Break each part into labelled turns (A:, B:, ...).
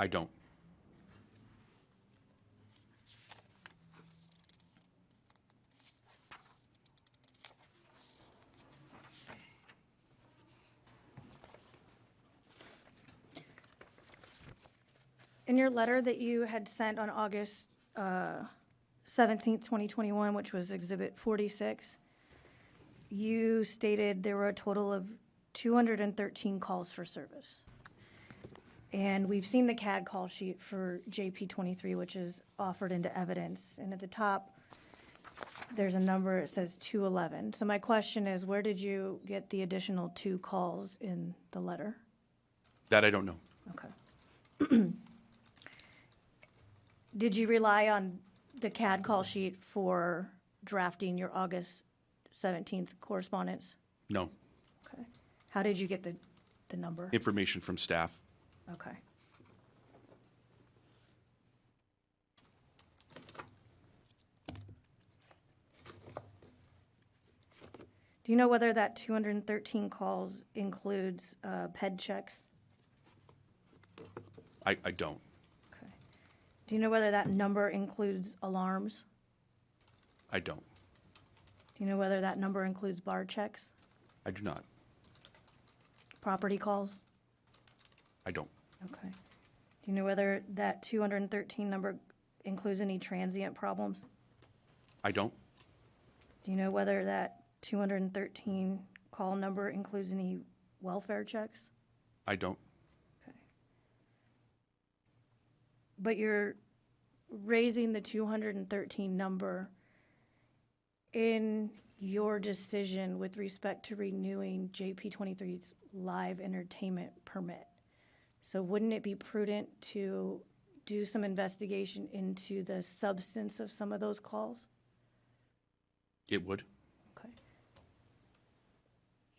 A: I don't.
B: In your letter that you had sent on August uh, seventeenth, twenty twenty-one, which was exhibit forty-six, you stated there were a total of two hundred and thirteen calls for service. And we've seen the CAD call sheet for JP twenty-three, which is offered into evidence, and at the top, there's a number, it says two eleven. So my question is, where did you get the additional two calls in the letter?
A: That I don't know.
B: Okay. Did you rely on the CAD call sheet for drafting your August 17th correspondence?
A: No.
B: Okay. How did you get the, the number?
A: Information from staff.
B: Okay. Do you know whether that 213 calls includes uh, ped checks?
A: I, I don't.
B: Okay. Do you know whether that number includes alarms?
A: I don't.
B: Do you know whether that number includes bar checks,
A: I do not.
B: property calls?
A: I don't.
B: Okay. Do you know whether that 213 number includes any transient problems?
A: I don't.
B: Do you know whether that 213 call number includes any welfare checks?
A: I don't.
B: But you're raising the 213 number in your decision with respect to renewing JP 23's live entertainment permit. So wouldn't it be prudent to do some investigation into the substance of some of those calls?
A: It would.
B: Okay.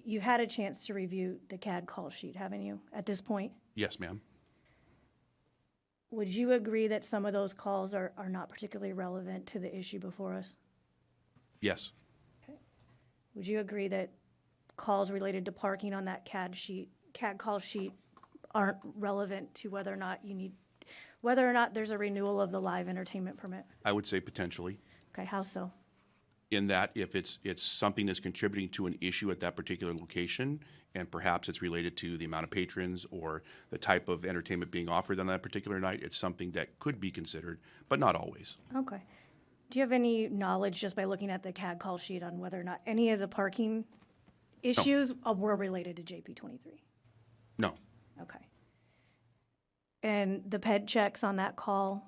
B: You've had a chance to review the CAD call sheet, haven't you, at this point?
A: Yes, ma'am.
B: Would you agree that some of those calls are, are not particularly relevant to the issue before us?
A: Yes.
B: Would you agree that calls related to parking on that CAD sheet, CAD call sheet aren't relevant to whether or not you need, whether or not there's a renewal of the live entertainment permit?
A: I would say potentially.
B: Okay, how so?
A: in that if it's, it's something that's contributing to an issue at that particular location, and perhaps it's related to the amount of patrons or the type of entertainment being offered on that particular night, it's something that could be considered, but not always.
B: Okay. Do you have any knowledge just by looking at the CAD call sheet on whether or not any of the parking issues uh, were related to JP twenty-three?
A: No,
B: Okay. And the ped checks on that call,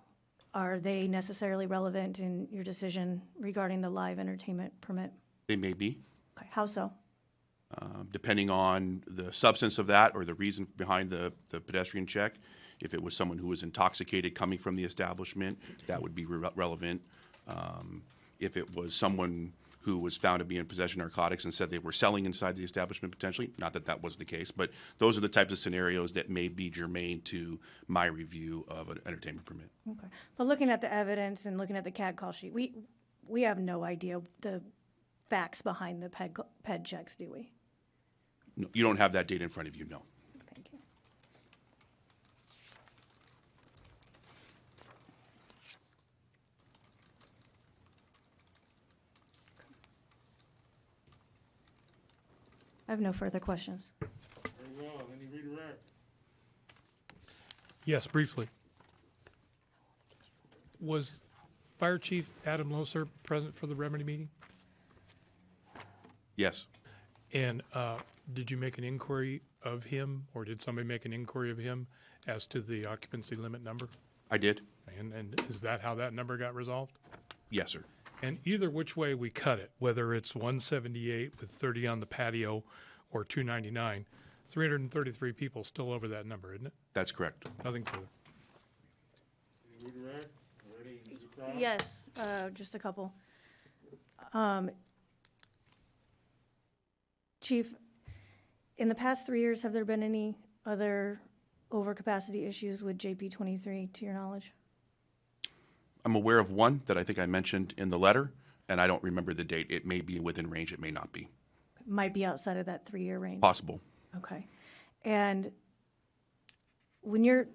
B: are they necessarily relevant in your decision regarding the live entertainment permit?
A: they may be,
B: Okay, how so?
A: um, depending on the substance of that or the reason behind the, the pedestrian check. If it was someone who was intoxicated coming from the establishment, that would be re- relevant. Um, If it was someone who was found to be in possession of narcotics and said they were selling inside the establishment potentially, not that that was the case, but those are the types of scenarios that may be germane to my review of an entertainment permit.
B: Okay. But looking at the evidence and looking at the CAD call sheet, we, we have no idea the facts behind the E ped, ped checks, do we?
A: No, You don't have that data in front of you, no.
B: Thank you. I have no further questions.
C: Very well, any redirect?
D: Yes, briefly. Was Fire Chief Adam Loser present for the remedy meeting?
A: Yes,
D: And uh, did you make an inquiry of him, or did somebody make an inquiry of him as to the occupancy limit number?
A: I did.
D: And, and is that how that number got resolved?
A: Yes, sir.
D: And either which way we cut it, whether it's 178 with 30 on the patio or 299, 333 people still over that number, isn't it?
A: That's correct.
D: Nothing further.
C: Any redirect? Ready, Ms. Crowe?
B: Yes, uh, just a couple. Um, Chief, in the past three years, have there been any other overcapacity issues with JP twenty-three, to your knowledge?
A: I'm aware of one that I think I mentioned in the letter, and I don't remember the date. It may be within range, it may not be.
B: Might be outside of that three-year range.
A: Possible.
B: Okay. And when you're